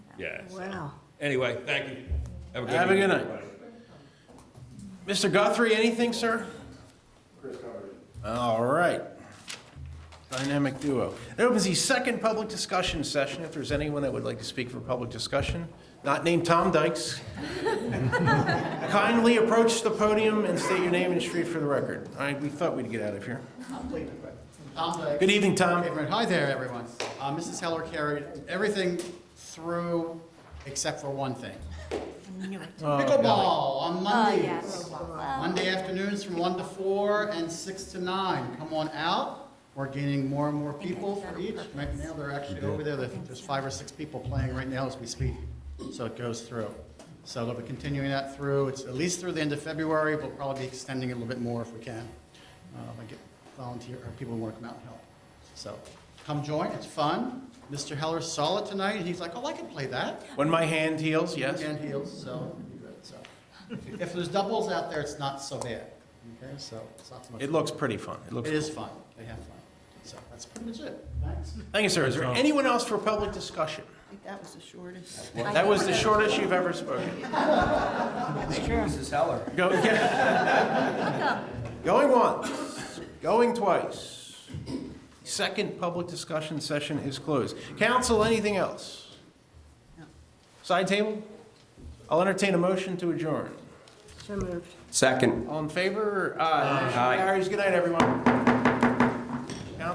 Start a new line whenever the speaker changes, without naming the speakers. Yeah. so-
Wow.
Anyway, thank you. Have a good
Have a
evening,
good night.
everybody.
Mr. Guthrie, anything, sir? All right. Dynamic duo. That opens the second public discussion session. If there's anyone that would like to speak for public discussion, not named Tom Dykes, kindly approach the podium and state your name and street for the record. All right, we thought we'd get out of here.
Tom Dykes.
Good evening, Tom.
Hey, everyone. Hi there, everyone. Uh, Mrs. Heller carried everything through except for one thing. Pickleball on Mondays. Monday afternoons from one to four and six to nine. Come on out. We're gaining more and more people for each. Right now, they're actually over there. There's there's five or six people playing right now as we speak. So it goes through. So they'll be continuing that through. It's at least through the end of February. We'll probably be extending it a little bit more if we can. Um, I get volunteer, or people who want to come out and help. So come join. It's fun. Mr. Heller saw it tonight and he's like, oh, I can play that
When my hand heals, yes.
and heels, so, so. If there's doubles out there, it's not so bad, okay, so it's not so much.
It looks pretty fun. It looks.
It is fun, they have fun, so that's pretty much it, thanks.
Thank you, sir. Is there anyone else for public discussion?
I think that was the shortest.
That was the shortest you've ever spoken.
Mrs. Heller.
Go, Going once, going twice. Second public discussion session is closed. Council, anything else? Side table? I'll entertain a motion to adjourn.
So moved.
Second.
All in favor? Aye.
Aye.
Carries. Good night, everyone.